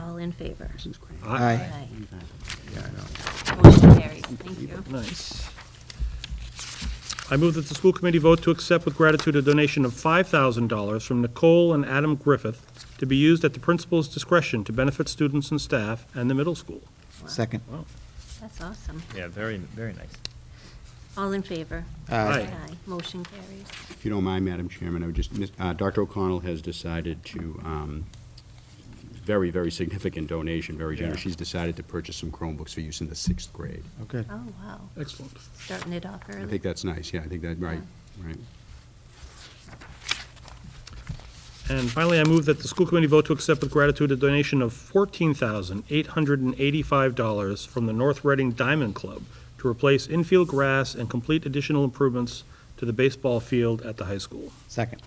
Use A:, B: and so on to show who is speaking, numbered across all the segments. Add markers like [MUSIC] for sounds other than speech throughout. A: All in favor?
B: Aye.
A: Aye.
B: Yeah, I know.
A: Motion carries. Thank you.
C: Nice. I move that the school committee vote to accept with gratitude a donation of $5,000 from Nicole and Adam Griffith to be used at the principal's discretion to benefit students and staff and the middle school.
B: Second.
A: That's awesome.
D: Yeah, very, very nice.
A: All in favor?
C: Aye.
A: Motion carries.
E: If you don't mind, Madam Chairman, I would just, miss- uh, Dr. O'Connell has decided to, um, very, very significant donation, very generous.
D: Yeah.
E: She's decided to purchase some Chromebooks for use in the sixth grade.
B: Okay.
A: Oh, wow.
C: Excellent.
A: Starting it off early.
E: I think that's nice, yeah, I think that, right, right.
C: And finally, I move that the school committee vote to accept with gratitude a donation of $14,885 from the North Reading Diamond Club to replace infield grass and complete additional improvements to the baseball field at the high school.
B: Second.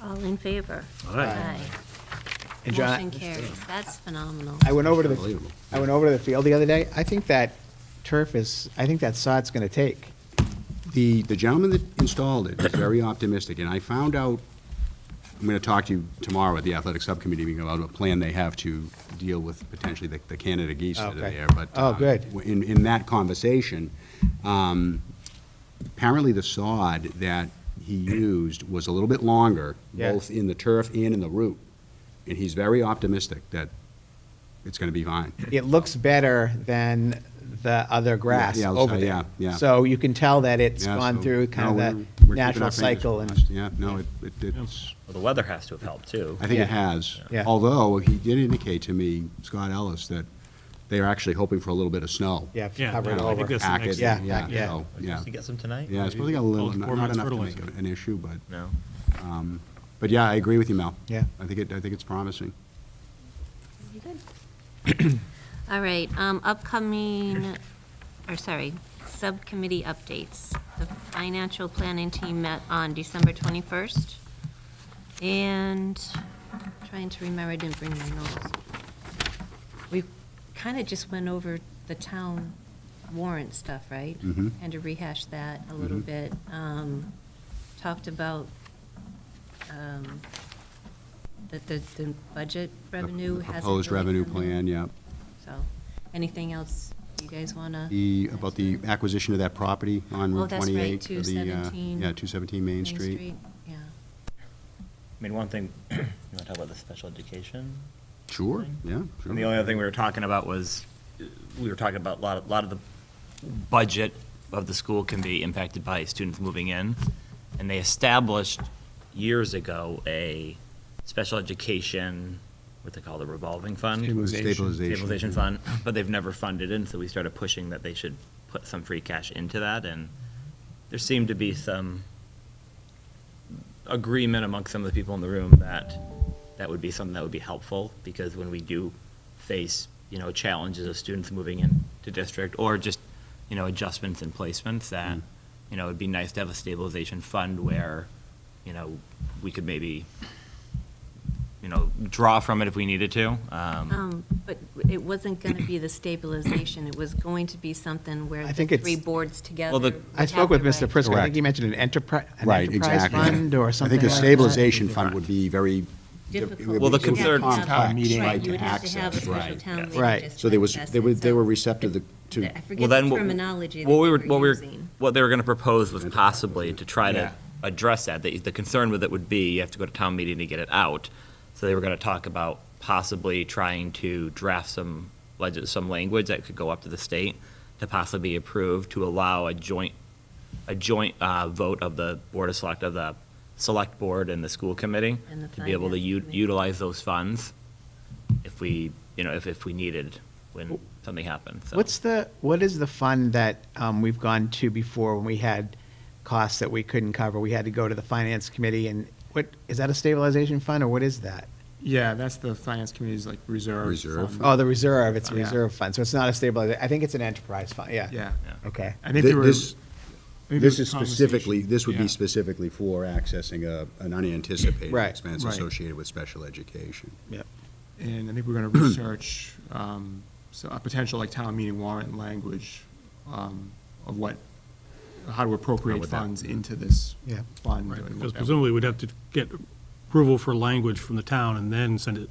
A: All in favor?
C: Aye.
B: And John, I-
A: Motion carries. That's phenomenal.
B: I went over to the,
E: Unbelievable.
B: I went over to the field the other day. I think that turf is, I think that sod's going to take.
E: The, the gentleman that installed it was very optimistic, and I found out, I'm gonna talk to you tomorrow at the athletic subcommittee meeting about a plan they have to deal with potentially the, the Canada geese that are
B: Okay.
E: there, but.
B: Oh,
E: uh,
B: good.
E: In, in that conversation, um, apparently the sod that he used was a little bit longer,
B: Yeah.
E: both in the turf and in the root, and he's very optimistic that it's gonna be fine.
B: It looks better than the other grass
E: yeah, I'll
B: over
E: say,
B: there.
E: yeah, yeah.
B: So you can tell that it's
E: Yeah,
B: gone
E: so-
B: through kind
E: no, we're-
B: of
E: we're
B: the
E: keeping
B: natural
E: our fingers
B: cycle and,
E: crossed. Yeah, no, it, it- it's,
D: Well, the weather has to have helped, too.
E: I think
B: Yeah.
E: it has.
B: Yeah.
E: Although, he did indicate to me, Scott Ellis, that they are actually hoping for a little bit of snow.
B: yeah,
F: Yeah,
B: cover it
E: Kind of
F: I
E: like
F: think
B: over.
F: that's the
E: pack it,
F: next
B: thing.
E: Yeah,
B: Yeah,
E: so, yeah.
D: Supposed to get some tonight?
E: Yeah, it's supposed to get a
F: All
E: little,
F: the
E: not
F: poor
E: not
F: man's
E: enough to make
F: fertilizer.
E: an issue, but,
D: No?
E: um, but yeah, I agree with you, Mel.
B: Yeah.
E: I think it, I think it's promising.
A: Very good. [CLEARS THROAT] All right, um, upcoming, or sorry, subcommittee updates. The financial planning team met on December 21st, and trying to remember, I didn't bring my notes. We kind of just went over the town warrant stuff, right?
E: Mhm.
A: Kind of rehashed that a little
E: Mhm.
A: bit. Um, Talked about um, that the, the budget
E: The-
A: revenue
E: the
A: hasn't.
E: Proposed
A: really
E: revenue
A: come in.
E: plan, yeah.
A: So, anything else you guys want to?
E: The, about the acquisition of that property on
A: Oh,
E: Route
A: that's right,
E: 28. for the, uh,
A: 217.
E: Yeah, 217 Main Street.
A: Yeah.
D: I mean, one thing, [CLEARS THROAT] you want to talk about the special education?
E: Sure, yeah, sure.
D: And the only other thing we were talking about was, uh, we were talking about a lot, a lot of the budget of the school can be impacted by students moving in. And they established years ago a special education, what they call the revolving fund?
E: Stabilization. Stabilization.
D: Stabilization fund, but they've never funded it, and so we started pushing that they should put some free cash into that, and there seemed to be some agreement amongst some of the people in the room that that would be something that would be helpful, because when we do face, you know, challenges of students moving into district, or just, you know, adjustments and placements, that,
E: Mm.
D: you know, it'd be nice to have a stabilization fund where, you know, we could maybe, you know, draw from it if we needed to. um,
A: Um, But it wasn't going to be the stabilization, it was going to be something where
B: I
A: the
B: think it's-
A: three boards together.
D: Well, the-
A: would
B: I spoke with
A: have the
B: Mr.
A: right-
B: Prisco. I
E: Correct.
B: think he mentioned an enterprise, an
E: Right,
B: enterprise
E: exactly.
B: fund or something
E: I think
B: like
E: the
B: that.
E: stabilization fund would be very. it would
A: Difficult.
D: Well, the
E: be too
D: concern-
E: complex,
D: Town
A: Right,
E: right,
A: you would
E: to
A: have to have a
E: access,
A: special
E: right.
A: town meeting
B: Right.
A: just
E: So they
A: to
E: was,
A: assess
E: they were,
A: it.
E: they
A: So
E: were receptive to, to,
A: I
D: Well,
A: forget
D: then
A: the
D: what-
A: terminology that
D: What we
A: they
D: were,
A: were
D: what we were,
A: using.
D: what they were going to propose was possibly to try
B: Yeah.
D: to address that. The, the concern with it would be you have to go to town meeting to get it out. So they were going to talk about possibly trying to draft some legis, some language that could go up to the state to possibly be approved to allow a joint, a joint uh, vote of the board of select, of the select board and the school committee
A: And the
D: to be able to
A: finance
D: u-
A: committee.
D: utilize those funds if we, you know, if, if we needed when something happened. So-
B: What's the, what is the fund that um, we've gone to before when we had costs that we couldn't cover? We had to go to the finance committee and what, is that a stabilization fund or what is that?
F: Yeah, that's the finance committee's like reserve.
E: Reserve
F: fund.
E: fund.
B: Oh, the reserve, it's a
F: Mm-hmm. Yeah.
B: reserve fund, so it's not a stabilization, I think it's an enterprise fund, yeah.
F: Yeah.
D: Yeah.
B: Okay,
F: I think there were.
E: This-
F: maybe
E: this
F: there
E: is
F: was a
E: specifically,
F: conversation.
E: this would
F: Yeah.
E: be specifically for accessing a, an unanticipated
B: Right.
E: expense
F: Right.
E: associated with special education.
F: And I think we're gonna research, um, so a potential like town meeting warrant language, um, of what, how to appropriate
D: would that-
F: funds into this
B: Yeah.
F: fund. and what
C: Because
F: that-
C: presumably we'd have to get approval for language from the town and then send it